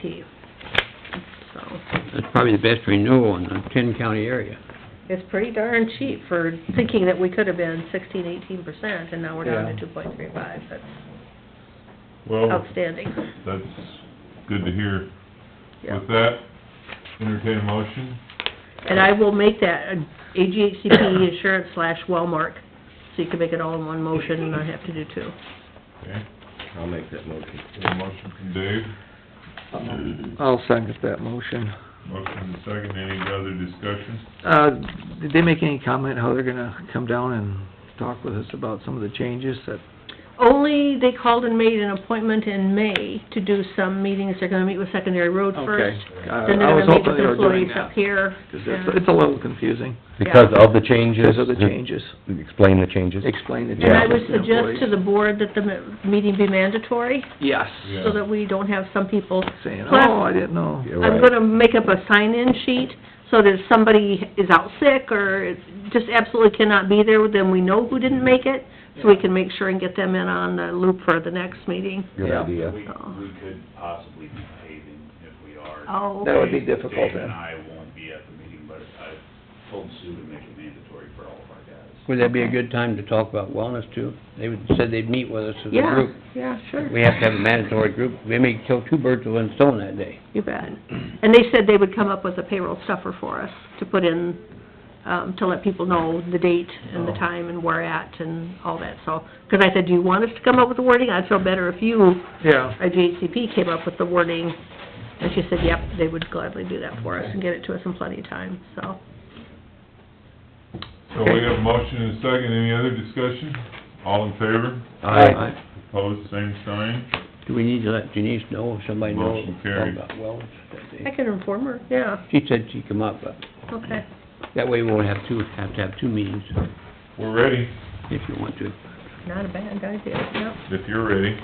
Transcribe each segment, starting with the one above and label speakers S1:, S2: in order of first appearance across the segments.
S1: P. So,
S2: That's probably the best renewal in the ten county area.
S1: it's pretty darn cheap for thinking that we could have been sixteen, eighteen percent, and now we're down
S2: Yeah.
S1: to two point three five, that's
S3: Oh.
S1: Oh.
S4: Well,
S1: outstanding.
S4: that's good to hear.
S1: Yeah.
S4: With that, entertain a motion.
S1: And I will make that uh, an AGHCP insurance slash Wellmark, so you can make it all in one motion and not have to do two.
S4: Okay,
S5: I'll make that motion.
S4: got a motion from Dave,
S3: I'll second that motion.
S4: motion to second, any other discussion?
S3: Uh, did they make any comment how they're gonna come down and talk with us about some of the changes that,
S1: Only, they called and made an appointment in May to do some meetings, they're gonna meet with secondary road
S3: okay.
S1: first.
S3: Uh,
S1: Then
S3: I
S1: they're gonna
S3: was
S1: meet
S3: hoping
S1: with
S3: they were doing
S1: employees up
S3: that,
S1: here.
S3: 'cause it's,
S1: and-
S3: it's a little confusing,
S5: Because of the changes?
S3: because of the changes.
S5: uh, Explain the changes?
S3: Explain the
S1: And I
S3: changes
S1: would
S3: to
S1: suggest to
S3: employees.
S1: the board that the me- meeting be mandatory,
S3: Yes,
S4: Yeah.
S1: so that we don't have some people...
S3: saying,
S1: Plus,
S3: oh, I didn't know.
S5: Yeah,
S1: I'm
S5: right.
S1: gonna make up a sign-in sheet, so that if somebody is out sick or is- just absolutely cannot be there, then we know who didn't make it, so we can make sure and get them in on the loop for the next meeting.
S5: Good
S3: Yeah.
S5: idea.
S6: We, we could possibly be paving if we are.
S1: Oh,
S3: That would be
S6: Dave-
S3: difficult
S6: Dave and
S3: then.
S6: I won't be at the meeting, but I told Sue to make it mandatory for all of our guys.
S2: Would that be a good time to talk about wellness too? They would- said they'd meet with us as a
S1: yeah,
S2: group.
S1: yeah, sure,
S2: We have to have a mandatory group. We may kill two birds with one stone that day.
S1: you bet. And they said they would come up with a payroll stuffer for us to put in, um, to let people know the date and the time and where at and all that, so. 'Cause I said, do you want us to come up with the wording? I'd feel better if you
S3: Yeah,
S1: our GHCP came up with the wording, and she said, yep, they would gladly do that for us and get it to us in plenty of time, so.
S4: So we have a motion and a second, any other discussion? All in favor,
S3: Aye.
S4: opposed, same sign,
S2: Do we need to let Denise know, if somebody knows
S4: Motion carried.
S2: about wellness that
S1: I
S2: day?
S1: can inform her, yeah,
S2: She said she'd come up, but
S1: okay.
S2: that way we won't have two, have to have two meetings
S4: we're ready,
S2: if you want to.
S1: Not a bad idea, yep.
S4: if you're ready,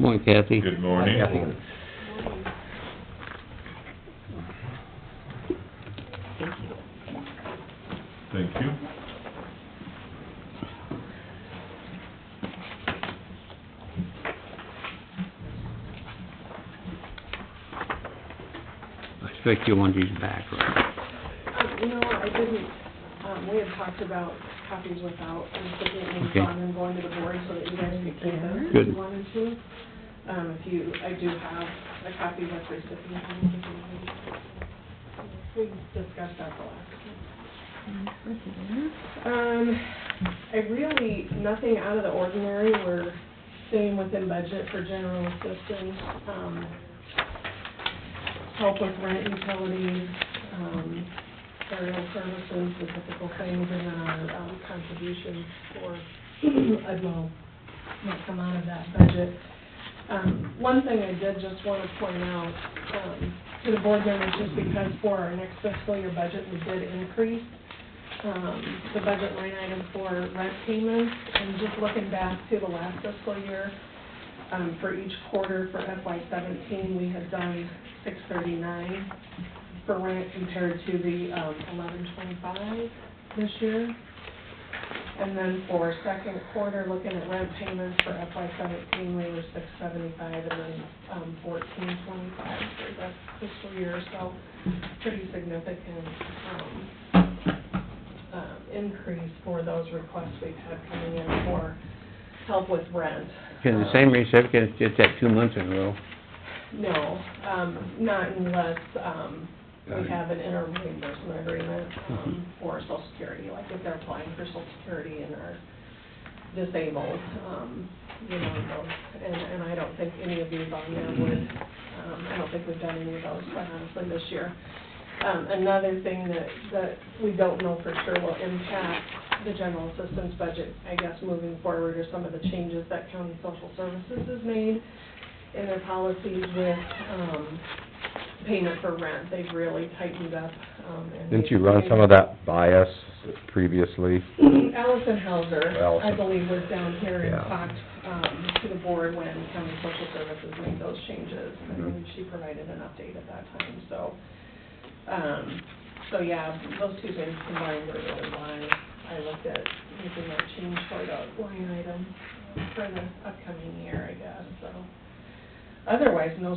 S2: Morning Kathy.
S4: good morning.
S2: Kathy.
S4: Thank you.
S2: I expect you want these back, right?
S7: Um, you know, I didn't, um, we had talked about copies without, and sticking it in
S2: Okay.
S7: front and going to the board so that you guys could keep them if
S2: Good.
S7: you wanted to. Um, if you, I do have a copy with recipient. if you want. We discussed that the last time. Um, I really, nothing out of the ordinary, we're staying within budget for general assistance, um, help with rent, utilities, um, burial services, the typical things, and then our, um, contributions for, I don't know, might come out of that budget. Um, one thing I did just want to point out, um, to the board members, just because for our next fiscal year budget, we did increase, um, the budget line item for rent payments, and just looking back to the last fiscal year, um, for each quarter for FY seventeen, we had done six thirty-nine for rent compared to the, um, eleven twenty-five this year. And then for second quarter, looking at rent payments for FY seventeen, we were six seventy-five, and then, um, fourteen twenty-five for that fiscal year, so pretty significant, um, um, increase for those requests we've had coming in for help with rent.
S2: Can the same recipients get that two months in a row?
S7: No, um, not unless, um,
S2: Got it.
S7: we have an inter reimbursement agreement, um, for social security, like if they're applying for social security and are disabled, um, you know, those. And, and I don't think any of these on there would, um, I don't think we've done any of those, quite honestly, this year. Um, another thing that, that we don't know for sure will impact the general assistance budget, I guess, moving forward, are some of the changes that county social services has made in their policies with, um, payment for rent. They've really tightened up, um, and.
S5: Didn't you run some of that by us previously?
S7: Allison Hauser, I
S5: Allison.
S7: believe, was down here and
S5: Yeah.
S7: talked, um, to the board when county social services made those changes. And
S5: Mm-hmm.
S7: she provided an update at that time, so, um, so yeah, those two things combined were really why I looked at making that change for the line item for the upcoming year, I guess, so. Otherwise, no